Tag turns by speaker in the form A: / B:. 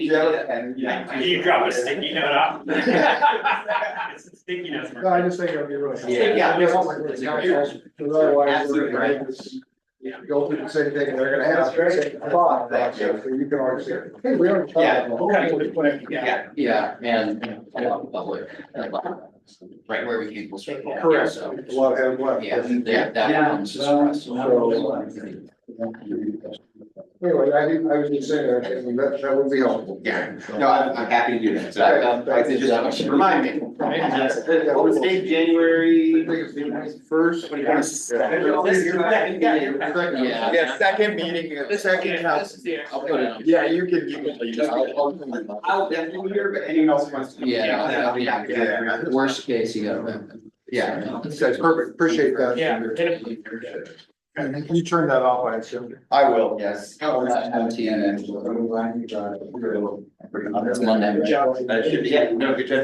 A: Joe and.
B: You drop a sticky note off. It's a sticky note.
C: No, I just think it'd be really.
A: Yeah.
C: I don't want to really count it, Because otherwise, we're
A: Absolutely
C: gonna
A: right.
C: have this, go through the same thing, and they're gonna have the same thought,
A: Thank you.
C: so you can always say, hey, we already. thought
A: Yeah.
C: about that.
A: Yeah, yeah, and I love the public, I love right where we can. we'll sort of-
C: Correct,
A: So,
C: what, and what.
A: yeah, that, that comes as well.
C: Anyway, I didn't, I was just saying, I think that, that would be helpful.
A: Yeah. No, I'm, I'm happy to do that, so um, I could just remind me. What was the date,
C: I
A: January?
C: think it's the first.
A: Yeah.
D: Yeah, second meeting, uh, second house.
A: I'll put it on.
D: Yeah, you can, you can.
A: I'll definitely hear, but anyone else wants to.
E: Yeah,
A: then I'll be happy to do that.
E: Worst case, you got that.
A: Yeah.
C: That's perfect, appreciate that. And you turn that off, I assume.
A: I will, yes.
E: Oh, that's empty and then-
A: That's
E: Monday.
A: uh, Yeah, no, good job.